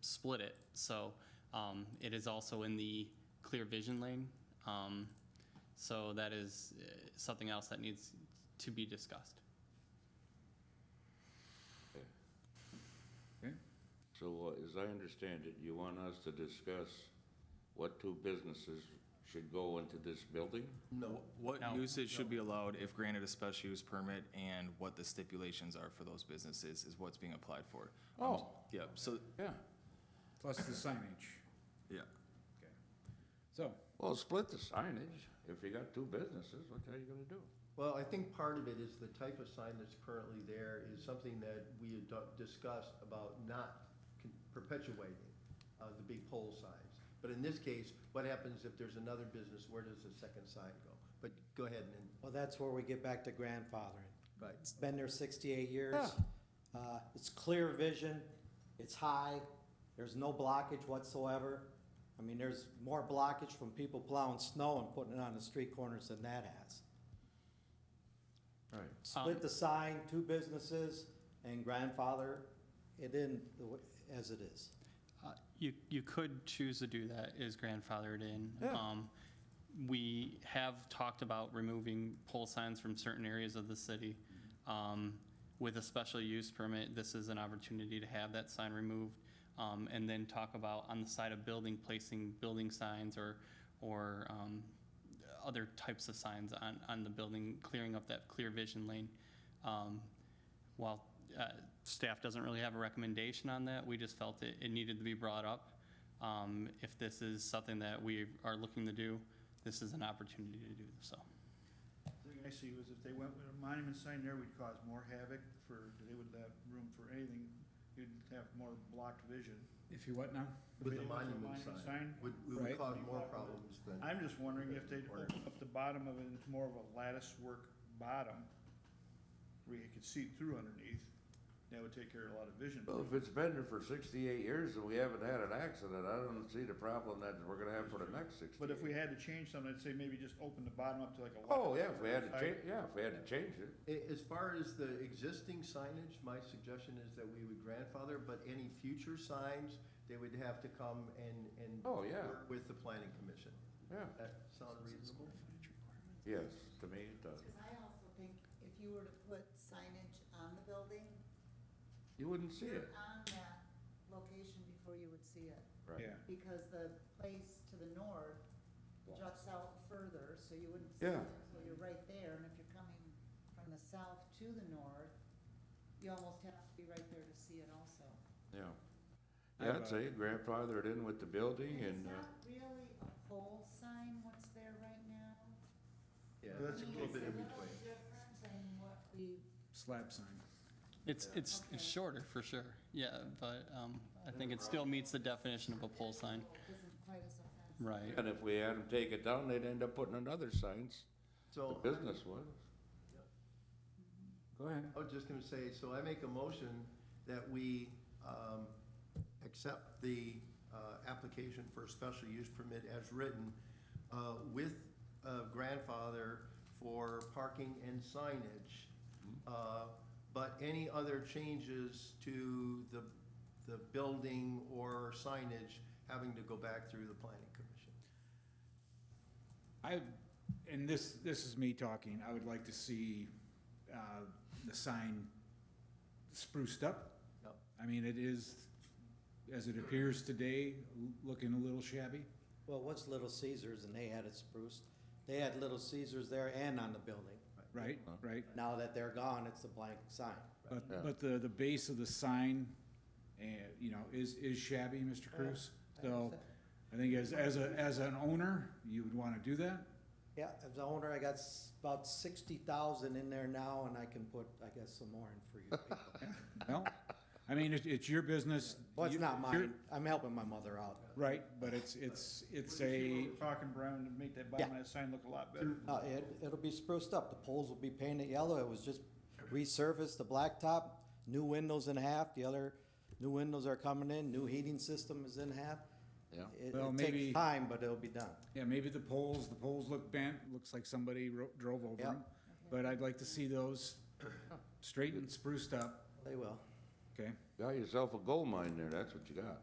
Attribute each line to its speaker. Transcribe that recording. Speaker 1: split it. So um, it is also in the clear vision lane. Um, So that is uh, something else that needs to be discussed.
Speaker 2: Okay.
Speaker 3: So uh, as I understand it, you want us to discuss what two businesses should go into this building?
Speaker 2: No. What
Speaker 1: No.
Speaker 2: uses should be allowed if granted a special use permit and what the stipulations are for those businesses is what's being applied for. Um,
Speaker 3: Oh.
Speaker 2: Yep, so,
Speaker 3: Yeah.
Speaker 4: Plus the signage.
Speaker 2: yeah.
Speaker 4: Okay. So,
Speaker 3: Well, split the signage. If you got two businesses, what are you gonna do?
Speaker 5: Well, I think part of it is the type of sign that's currently there is something that we had du- discussed about not con- perpetuating uh, the big pole signs. But in this case, what happens if there's another business, where does the second sign go? But go ahead and,
Speaker 6: Well, that's where we get back to grandfathering.
Speaker 5: right,
Speaker 6: It's been there sixty-eight years. Uh, it's clear vision, it's high, there's no blockage whatsoever. I mean, there's more blockage from people plowing snow and putting it on the street corners than that has.
Speaker 3: Right.
Speaker 1: Um.
Speaker 6: Split the sign, two businesses, and grandfather it in the w- as it is.
Speaker 1: Uh, You, you could choose to do that, is grandfathered in. Um, We have talked about removing pole signs from certain areas of the city. Um, With a special use permit, this is an opportunity to have that sign removed. um, And then talk about on the side of building, placing building signs or, or um, other types of signs on, on the building, clearing up that clear vision lane. Um, While uh, staff doesn't really have a recommendation on that, we just felt it, it needed to be brought up. Um, If this is something that we are looking to do, this is an opportunity to do so.
Speaker 7: The thing I see was if they went with a monument sign there, we'd cause more havoc for, they wouldn't have room for anything. You'd have more blocked vision.
Speaker 4: if you what now?
Speaker 5: with
Speaker 7: If
Speaker 5: the
Speaker 7: they went with a
Speaker 5: monument sign, would, we would
Speaker 4: Right.
Speaker 5: cause more problems than.
Speaker 7: I'm just wondering if they'd open up the bottom of it into more of a lattice work bottom where you could see through underneath. That would take care of a lot of vision.
Speaker 3: Well, if it's been there for sixty-eight years and we haven't had an accident, I don't see the problem that we're gonna have for the next sixty.
Speaker 7: But if we had to change something, I'd say maybe just open the bottom up to like a.
Speaker 3: Oh,
Speaker 7: lattice
Speaker 3: yeah, if we had to
Speaker 7: type.
Speaker 3: change, yeah, if we had to change it.
Speaker 5: A- As far as the existing signage, my suggestion is that we would grandfather, but any future signs, they would have to come and, and.
Speaker 3: Oh, yeah.
Speaker 5: work With the planning commission.
Speaker 3: Yeah.
Speaker 5: That sound reasonable?
Speaker 3: Yes, to me it does.
Speaker 8: Because I also think if you were to put signage on the building,
Speaker 3: You wouldn't see it.
Speaker 8: you're on that location before you would see it.
Speaker 3: Right.
Speaker 7: Yeah.
Speaker 8: Because the place to the north juts out further, so you wouldn't see it
Speaker 3: Yeah.
Speaker 8: until you're right there. And if you're coming from the south to the north, you almost have to be right there to see it also.
Speaker 3: Yeah.
Speaker 4: I
Speaker 3: Yeah,
Speaker 4: have
Speaker 3: I'd
Speaker 4: a-
Speaker 3: say grandfathered in with the building
Speaker 8: It's
Speaker 3: and, uh,
Speaker 8: not really a pole sign what's there right now.
Speaker 5: Yeah.
Speaker 8: I
Speaker 7: That's a
Speaker 8: mean,
Speaker 7: little
Speaker 8: it's
Speaker 7: bit in
Speaker 8: little different than what we
Speaker 4: Slab sign.
Speaker 1: It's, it's,
Speaker 8: Okay.
Speaker 1: it's shorter for sure, yeah, but um, I think it still meets the definition of a pole sign.
Speaker 8: isn't quite as offensive.
Speaker 1: Right.
Speaker 3: and if we had them take it down, they'd end up putting another signs, the
Speaker 5: So.
Speaker 3: business was. Go ahead.
Speaker 5: I was just gonna say, so I make a motion that we, um, accept the, uh, application for a special use permit as written, uh, with, uh, grandfather for parking and signage. Uh, but any other changes to the, the building or signage having to go back through the planning commission.
Speaker 4: I, and this, this is me talking, I would like to see, uh, the sign spruced up.
Speaker 5: Yep.
Speaker 4: I mean, it is, as it appears today, l- looking a little shabby.
Speaker 6: Well, what's Little Caesars and they had it spruced? They had Little Caesars there and on the building.
Speaker 4: Right, right.
Speaker 6: Now that they're gone, it's a blank sign.
Speaker 3: Uh-huh. Yeah.
Speaker 4: But, but the, the base of the sign, and, you know, is, is shabby, Mr. Cruz. So I think as, as a, as an owner, you would want to do that.
Speaker 6: Yeah, as the owner, I got s- about sixty thousand in there now, and I can put, I guess, some more in for you people.
Speaker 4: Well, I mean, it's, it's your business.
Speaker 6: Well, it's
Speaker 4: You-
Speaker 6: not
Speaker 4: you're-
Speaker 6: mine, I'm helping my mother out.
Speaker 4: Right, but it's, it's, it's a,
Speaker 7: We're Talking brown to make that bottom of that sign look a lot better.
Speaker 6: Uh, it, it'll be spruced up, the poles will be painted yellow, it was just resurfaced, the blacktop, new windows in half, the other new windows are coming in, new heating system is in half.
Speaker 3: Yeah.
Speaker 6: It,
Speaker 4: Well,
Speaker 6: it
Speaker 4: maybe-
Speaker 6: takes time, but it'll be done.
Speaker 4: yeah, maybe the poles, the poles look bent, looks like somebody ro- drove over
Speaker 6: Yeah.
Speaker 4: them. But I'd like to see those straightened, spruced up,
Speaker 6: They will.
Speaker 4: okay?
Speaker 3: Got yourself a gold mine there, that's what you got.